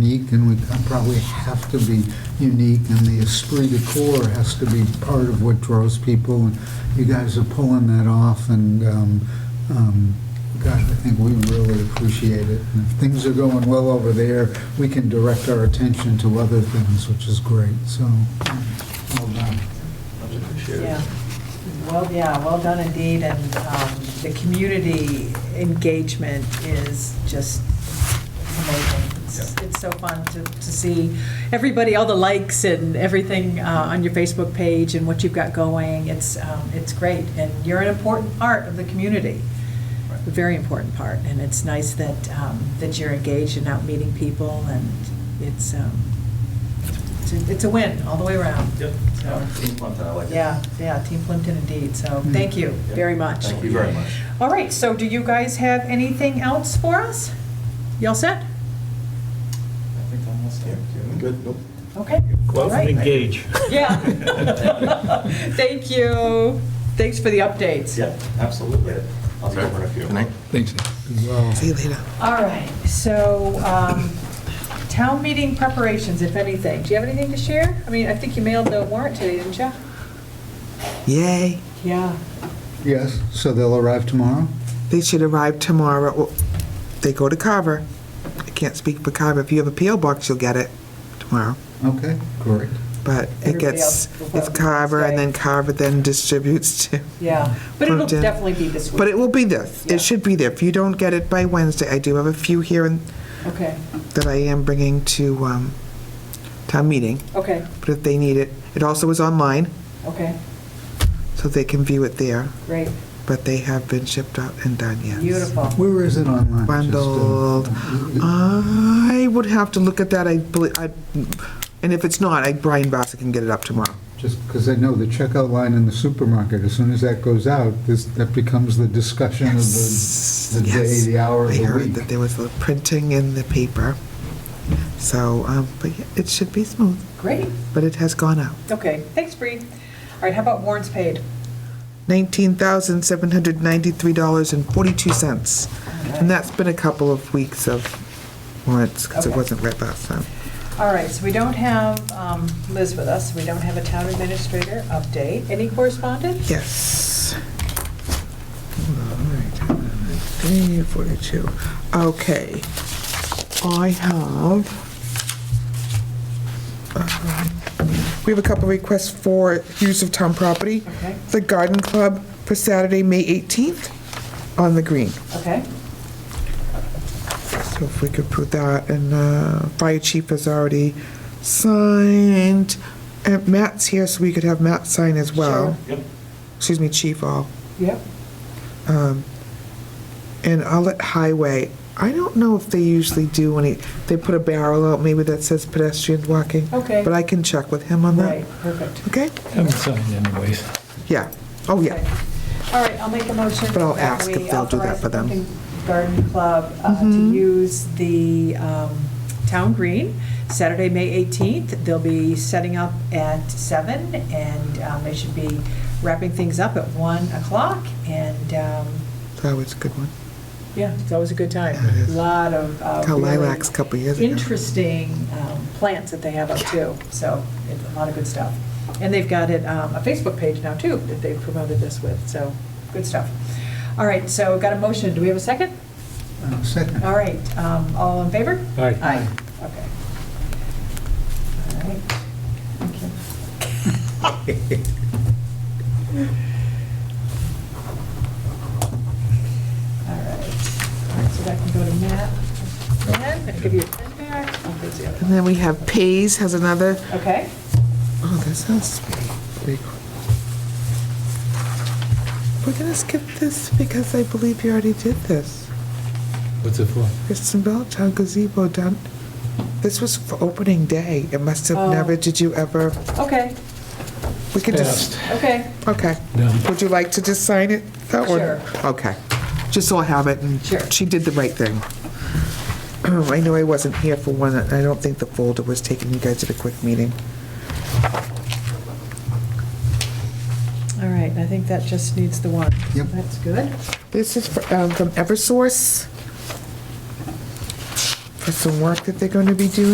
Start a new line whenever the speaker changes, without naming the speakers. and would probably have to be unique, and the esprit de corps has to be part of what draws people, and you guys are pulling that off, and, um, um, gosh, I think we really appreciate it. And if things are going well over there, we can direct our attention to other things, which is great, so, um, well done.
Much appreciated.
Yeah, well, yeah, well done indeed, and um, the community engagement is just amazing. It's- It's so fun to, to see everybody, all the likes and everything uh, on your Facebook page and what you've got going. It's, um, it's great, and you're an important part of the community, a very important part, and it's nice that, um, that you're engaged and out meeting people, and it's, um, it's a- it's a win all the way around.
Yep.
So-
Team Plimpton, I like it.
yeah, yeah, Team Plimpton indeed, so
Mm.
thank you very much.
Thank you very much.
All right, so do you guys have anything else for us? Y'all set?
I think I'm all set. Good, nope.
Okay. All
Well,
right.
engage.
Yeah. Thank you. Thanks for the updates.
Yeah, absolutely. I'll go over in a few.
Good night.
Thanks.
Well,
All right, so um, town meeting preparations, if anything. Do you have anything to share? I mean, I think you mailed the warrant today, didn't you?
Yay.
Yeah.
yes, so they'll arrive tomorrow?
They should arrive tomorrow. Well, They go to Carver. I can't speak for Carver. If you have a PO box, you'll get it tomorrow.
Okay, great.
But it
Everybody
gets,
else will
it's
have
Carver and then
today.
Carver then distributes to,
Yeah, but it'll
Plimpton.
definitely be this week.
but it will be this.
Yeah.
It should be there. If you don't get it by Wednesday, I do have a few here and-
Okay,
that I am bringing to um, town meeting,
okay,
but if they need it, it also is online,
okay,
so they can view it there,
great,
but they have been shipped out and done, yes.
beautiful.
Where is it online? uh, Just, uh,
Bundled. uh, I would have to look at that, I believe, I, and if it's not, I, Brian Bassett can get it up tomorrow.
Just because I know the checkout line in the supermarket, as soon as that goes out, this, that becomes the discussion of the, the day,
Yes.
the hour, of
I
the
heard that
week.
there was a printing in the paper, so, um, but yeah, it should be smooth,
Great,
but it has gone out.
okay, thanks, Bree. All right, how about warrants paid?
Nineteen thousand seven hundred ninety-three dollars and forty-two cents, and that's been a couple of weeks of warrants, because it
Okay.
wasn't read last time.
All right, so we don't have um, Liz with us, we don't have a town administrator update. Any correspondence?
Yes. All right, Day 42. Okay. I have, um, we have a couple requests for use of town property.
Okay.
The Garden Club for Saturday, May 18th, on the green.
Okay,
So if we could put that, and uh, Fire Chief has already signed, and Matt's here, so we could have Matt sign as well.
Yep.
Excuse me, Chief All.
yep,
Um, And I'll let Highway, I don't know if they usually do any, they put a barrel out, maybe that says pedestrian walking.
Okay.
But I can check with him on
right,
that.
perfect.
Okay?
Haven't signed anyways.
Yeah. Oh,
Okay.
yeah.
All right, I'll make a motion.
But I'll
that
ask
we
if they'll do that
authorize
for them. Mm-hmm.
the Plimpton Garden Club uh, to use the um, town green Saturday, May 18th. They'll be setting up at seven, and um, they should be wrapping things up at one o'clock. And um,
That was a good one.
yeah, it's always a good time.
Yeah, it is.
Lot of. uh,
Got
really
lilacs a couple years ago.
Interesting um, plants that they have up too, so it's a lot of good stuff. And they've got it, um, a Facebook page now too, that they've promoted this with, so good stuff. All right, so got a motion, do we have a second?
Uh, Second.
All right, um, all in favor?
Aye.
Aye, okay. All right, thank you. All right, All right, so that can go to Matt. Matt, i give you a pen back. Oh, there's the other
And
one.
then we have Pays has another,
Okay,
oh, this has to be big. We're gonna skip this because I believe you already did this.
What's it for?
It's in Belltown gazebo done. This was for opening day. It must have
Oh.
never, did you ever?
okay,
We can just,
okay,
okay.
Done.
Would you like to just sign it? That one?
Sure.
Okay. Just so I have it, and
Sure.
she did the right thing. Oh, I know I wasn't here for one, and I don't think the folder was taken. You guys did a quick meeting.
all right, I think that just needs the one.
Yep.
That's good.
This is fr- um, from Eversource for some work that they're going to be doing.